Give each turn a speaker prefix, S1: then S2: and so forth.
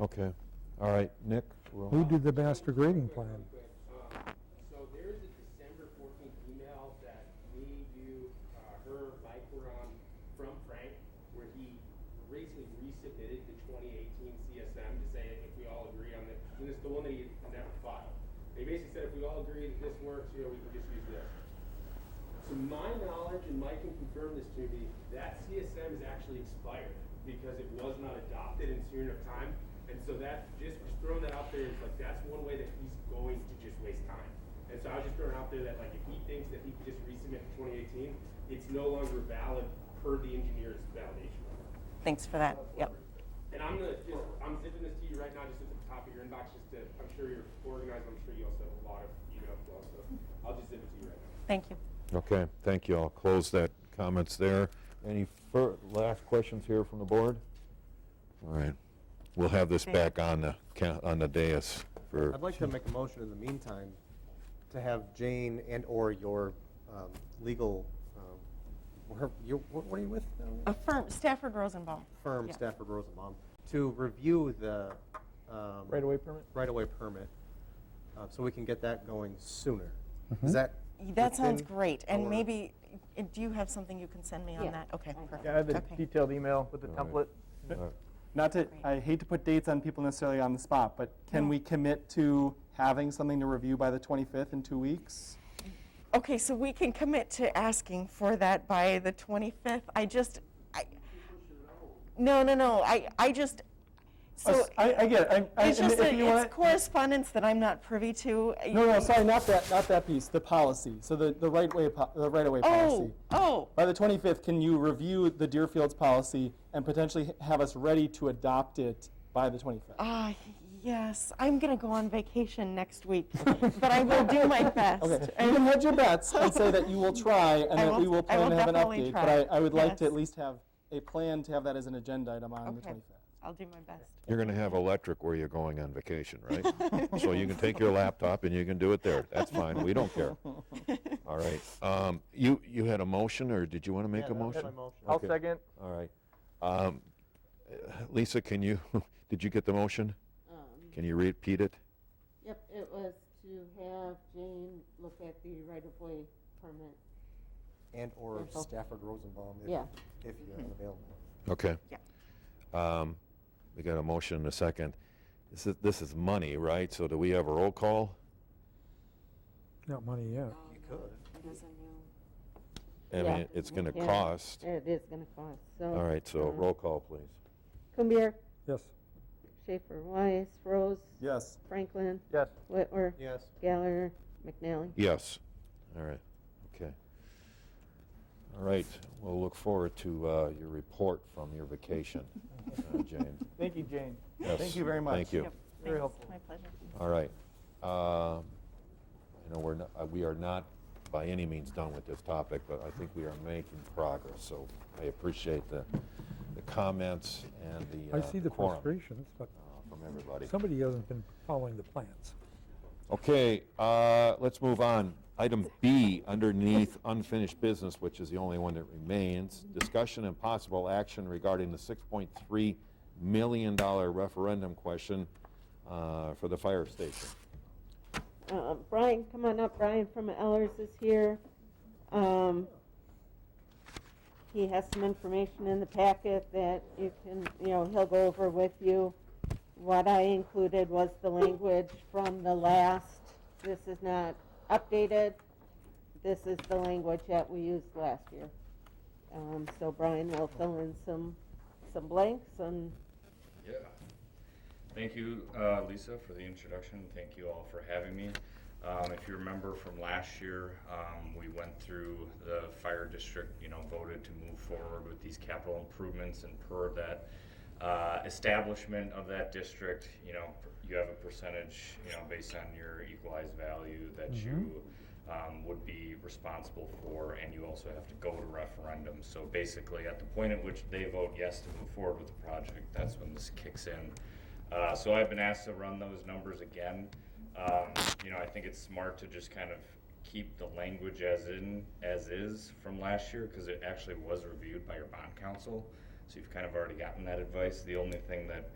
S1: Okay, all right, Nick? we'll-
S2: Who did the master grading plan?
S3: Um, So there's a December fourteenth email that me, you, uh, her, Mike were on from Frank, where he basically resubmitted the twenty eighteen CSM to say if we all agree on this, and it's the one that he had never filed. They basically said if we all agree that this works, you know, we can just use this. To my knowledge, and Mike can confirm this to me, that CSM is actually expired because it was not adopted in soon enough time. And so that, just throwing that out there is like, that's one way that he's going to just waste time. And so I was just throwing out there that like, if he thinks that he could just resubmit in twenty eighteen, it's no longer valid per the engineer's validation.
S4: Thanks for that. Yep.
S3: And I'm gonna just, I'm zipping this to you right now, just at the top of your inbox, just to, I'm sure you're organized, I'm sure you also have a lot of email flow, so I'll just zip it to you right now.
S4: Thank you.
S1: Okay, thank you. I'll close that comments there. Any fir, last questions here from the board? All right, we'll have this back on the, ca- on the dais for,
S5: I'd like to make a motion in the meantime to have Jane and/or your um, legal, um, her- your- what what are you with? now?
S4: Affirm, Stafford Rosenbaum.
S5: Firm
S4: Uh, Yeah.
S5: Stafford Rosenbaum, to review the. Right-of-way permit? Right-of-way permit, uh, so we can get that going sooner. Is that?
S4: That sounds
S5: within
S4: great. And
S5: our-
S4: maybe, uh, do you have something you can send me on
S6: Yeah.
S4: that? Okay, perfect.
S7: Yeah, I have a
S4: Okay.
S7: detailed email with the
S1: All
S7: template.
S1: right. uh,
S7: Not to,
S4: Great.
S7: I hate to put dates on people necessarily on the spot, but can
S4: No.
S7: we commit to having something to review by the 25th in two weeks?
S4: Okay, so we can commit to asking for that by the 25th. I just, I, no, no, no, I, I just, so
S7: Us- I, I get it. I- I-
S4: it's
S7: and
S4: just,
S7: if
S4: that
S7: you wanna-
S4: it's correspondence that I'm not privy to. I-
S7: No, no, sorry, not that, not that piece, the policy, so the, the right way, po- the right away
S4: Oh,
S7: policy.
S4: oh,
S7: By the 25th, can you review the Deerfields policy and potentially h- have us ready to adopt it by the 25th?
S4: ah, yes, I'm going to go on vacation next week, but I will do my best.
S7: Okay, you can hedge your bets and say that you will try and
S4: I
S7: that
S4: will-
S7: we will
S4: I will
S7: plan to have an
S4: definitely
S7: update. But
S4: try.
S7: I, I would like to
S4: Yes.
S7: at least have a plan to have that as an agenda item on the
S4: Okay.
S7: 25th.
S4: I'll do my best.
S1: You're gonna have electric where you're going on vacation, right? So you can take your laptop and you can do it there. That's fine, we don't care. All right, um, you, you had a motion, or did you wanna make a motion?
S7: I'll
S1: Okay.
S7: second.
S1: All right. Um, Lisa, can you, did you get the motion?
S6: Um,
S1: Can you repeat it?
S6: Yep, it was to have Jane look at the right-of-way permit.
S5: And/or
S6: Info.
S5: Stafford Rosenbaum, if-
S6: Yeah.
S5: if you're available.
S1: Okay.
S4: Yep.
S1: Um, We got a motion and a second. This is, this is money, right? So do we have a roll call?
S2: Not money yet.
S5: You could.
S1: I
S6: Yeah.
S1: mean, it's going to
S6: Yeah.
S1: cost.
S6: It is gonna cost, so.
S1: All right, so
S6: um,
S1: roll call, please.
S6: Cumbier,
S2: Yes.
S6: Schaefer, Weiss, Rose,
S7: Yes.
S6: Franklin,
S7: Yes.
S6: Whitwer,
S5: Yes.
S6: Gallagher, McNally.
S1: Yes. All right, okay. All right, we'll look forward to uh, your report from your vacation, uh, Jane.
S7: Thank you, Jane.
S1: Yes,
S7: Thank you very much.
S1: Thank you.
S4: Yep, thanks.
S7: Very helpful.
S4: My pleasure.
S1: All right. Um, I know we're not, uh, we are not by any means done with this topic, but I think we are making progress. So I appreciate the, the comments and the uh,
S2: I see the
S1: quorum,
S2: frustrations, but
S1: uh, From everybody.
S2: somebody hasn't been following the plans.
S1: Okay, uh, let's move on. Item B, underneath unfinished business, which is the only one that remains, discussion and possible action regarding the $6.3 million referendum question uh, for the fire station.
S6: Uh, Brian, come on up, Brian from Ellers is here. Um, he has some information in the packet that you can, you know, he'll go over with you. What I included was the language from the last, this is not updated, this is the language that we used last year. Um, so Brian will fill in some, some blanks and
S8: Yeah. Thank you, uh, Lisa, for the introduction. Thank you all for having me. Um, If you remember from last year, um, we went through the fire district, you know, voted to move forward with these capital improvements and per that uh, establishment of that district, you know, you have a percentage, you know, based on your equalized value that you um, would be responsible for, and you also have to go to referendum. So basically, at the point at which they vote yes to move forward with the project, that's when this kicks in. Uh, so I've been asked to run those numbers again. Um, you know, I think it's smart to just kind of keep the language as in, as is from last year, because it actually was reviewed by your bond council. So you've kind of already gotten that advice. The only thing that